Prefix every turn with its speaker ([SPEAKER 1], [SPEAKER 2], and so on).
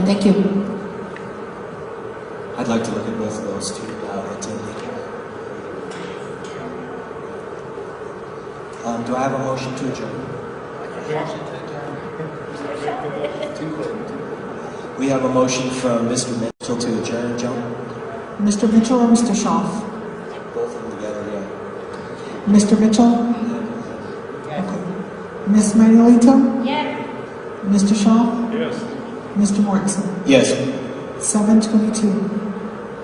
[SPEAKER 1] Thank you.
[SPEAKER 2] I'd like to look at both of those uh, too, now that they Um, do I have a motion to adjourn? We have a motion from Mr. Mitchell to adjourn, Joan?
[SPEAKER 1] Mr. Mitchell or Mr. Schaaf?
[SPEAKER 2] Both of them together, yeah.
[SPEAKER 1] Mr. Mitchell? Okay. Ms. Manuelito?
[SPEAKER 3] Yes.
[SPEAKER 1] Mr. Schaaf?
[SPEAKER 4] Yes.
[SPEAKER 1] Mr. Mortensen?
[SPEAKER 2] Yes,
[SPEAKER 1] Seven twenty-two.